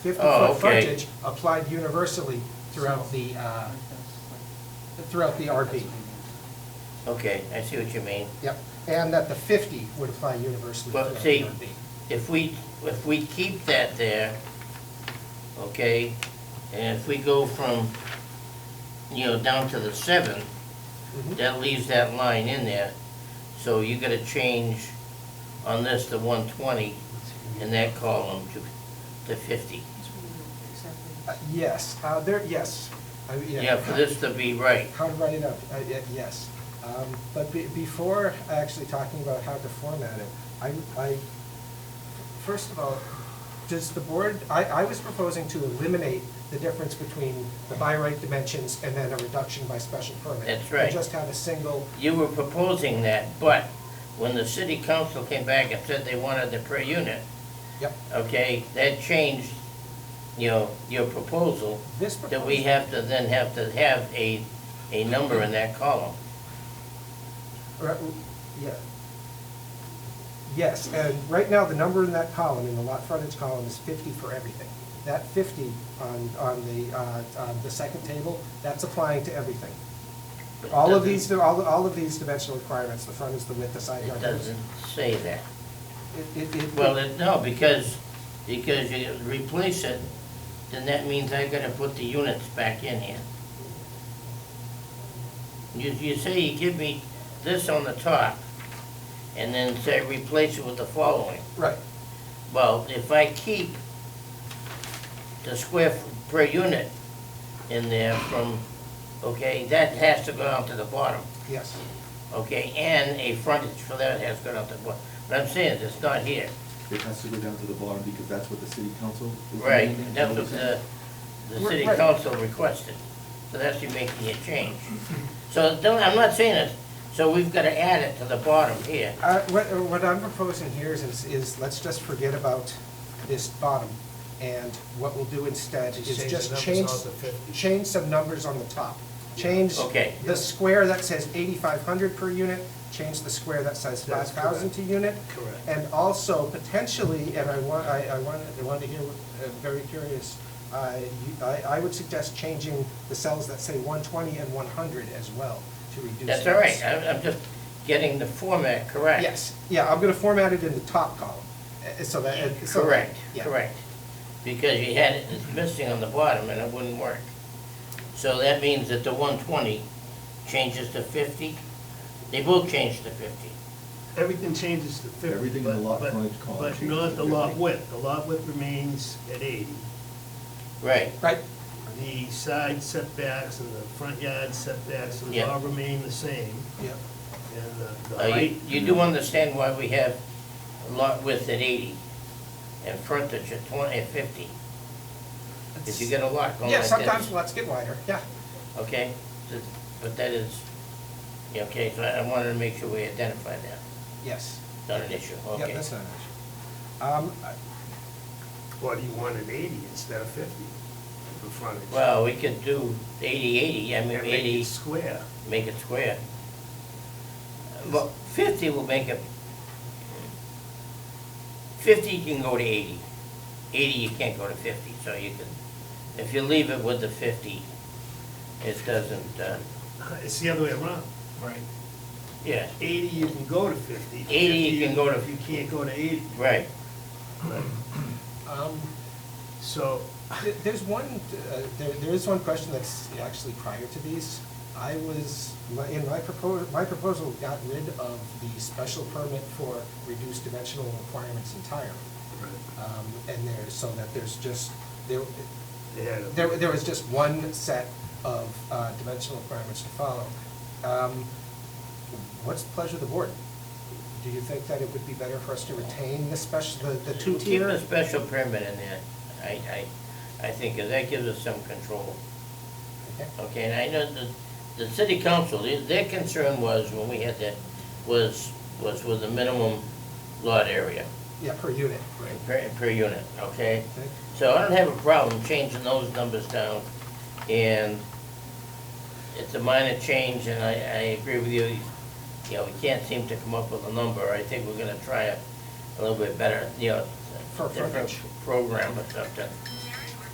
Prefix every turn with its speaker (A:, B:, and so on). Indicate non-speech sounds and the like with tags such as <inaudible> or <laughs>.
A: Oh,
B: fifty-foot
A: okay.
B: frontage applied universally throughout the, uh, throughout the RB.
A: Okay, I see what you mean.
B: Yep, and that the fifty would apply universally
A: But
B: throughout the RB.
A: see, if we, if we keep that there, okay, and if we go from, you know, down to the seven,
B: Mhm.
A: that leaves that line in there. So you gotta change on this to one twenty in that column to, to fifty.
B: Uh, Yes, uh, there, yes. I-
A: Yeah, for this to be right.
B: How to write it up, uh, yeah, yes. Um, But be- before actually talking about how to format it, I, I, first of all, does the board, I, I was proposing to eliminate the difference between the by right dimensions and then a reduction by special permit.
A: That's right.
B: And just have a single,
A: You were proposing that, but when the city council came back and said they wanted the per unit,
B: yep,
A: okay, that changed, you know, your proposal,
B: this
A: that
B: proposal,
A: we have to then have to have a, a number in that column.
B: or, yeah. Yes, and right now, the number in that column, in the lot frontage column, is fifty for everything. That fifty on, on the, uh, on the second table, that's applying to everything.
A: but it
B: All of
A: doesn't-
B: these, all, all of these dimensional requirements, the front is the width, the side
A: It
B: yard.
A: doesn't say that.
B: It, it, it.
A: Well, it, no, because, because you replace it, then that means I gotta put the units back in here. You, you say you give me this on the top, and then say replace it with the following.
B: Right,
A: Well, if I keep the square f- per unit in there from, okay, that has to go down to the bottom,
B: yes,
A: okay? And a frontage for that has to go down to the bottom. But I'm saying, it's not here.
C: It has to go down to the bottom because that's what the city council is
A: Right, uh,
C: demanding.
A: that's what the, the city
B: Right.
A: council requested, so that's you making a change.
B: Mm-hmm.
A: So don't, I'm not saying it, so we've gotta add it to the bottom here.
B: uh, what, what I'm proposing here is- is, is let's just forget about this bottom, and what we'll do instead
D: Just
B: is
D: change
B: just
D: the numbers
B: change,
D: off the 50.
B: change some numbers on the top. Change
A: Okay.
B: the square that says eighty-five hundred per unit, change the square that says five
D: That's correct.
B: thousand to unit.
D: Correct.
B: And also potentially, and I want, I, I want, I wanted to hear, uh, very curious, uh, you- I, I would suggest changing the cells that say one twenty and one hundred as well to reduce.
A: That's all
B: that.
A: right, I'm, I'm just getting the format correct.
B: Yes, yeah, I'm gonna format it in the top column, uh, so that. uh, so-
A: Correct,
B: yeah.
A: correct. Because you had it, it's missing on the bottom and it wouldn't work. So that means that the one twenty changes to fifty, they both change to fifty.
D: Everything changes to fifty.
C: Everything in the
D: but-
C: lot
D: but-
C: frontage column
D: But
C: changes
D: not
C: to
D: the lot
C: 50.
D: width. The lot width remains at eighty.
A: Right,
B: Right,
D: The side setbacks and the front yard setbacks will
A: Yeah.
D: all remain the same,
B: yeah,
D: and the- the
A: Uh, you,
D: height.
A: you do understand why we have lot width at eighty and frontage at twenty, at fifty? If you get a lot going
B: yeah,
A: like
B: sometimes
A: this,
B: lots get wider, yeah,
A: okay? Th- But that is, yeah, okay, so I I wanted to make sure we identify that,
B: yes,
A: not an issue,
B: yeah,
A: okay?
B: that's not an issue. Um, I-
D: Or do you want an eighty instead of fifty for frontage?
A: Well, we could do eighty, eighty, I mean,
D: And make
A: eighty.
D: it square. <laughs>
A: make it square. Well, fifty will make it, fifty you can go to eighty. Eighty, you can't go to fifty, so you can, if you leave it with the fifty, it doesn't, uh,
D: It's the other way around.
A: Right. yeah,
D: Eighty, you can go to fifty.
A: 80 you
D: 50,
A: can go to-
D: You can't go to eighty.
A: right,
B: um,
D: So,
B: There- There's one, uh, there, there is one question that's actually prior to these. I was, my- in my proposal, my proposal got rid of the special permit for reduced dimensional requirements entirely.
D: uh,
B: Um, And there, so that there's just, there,
D: they had a-
B: there, there was just one set of uh, dimensional requirements to follow. Um, What's the pleasure of the board? Do you think that it would be better for us to retain the special, the, the
A: keep
B: two-tier?
A: a special permit in there, I, I, I think, 'cause that gives us some control.
B: Okay.
A: Okay, and I know the, the city council, their- their concern was, when we had that, was, was with the minimum lot area
B: Yeah, per unit, right?
A: per, per unit, okay?
B: Okay.
A: So I don't have a problem changing those numbers down, and it's a minor change, and I, I agree with you. You know, we can't seem to come up with a number, I think we're gonna try a, a little bit better, you know,
B: For
A: different
B: frontage.
A: program or something.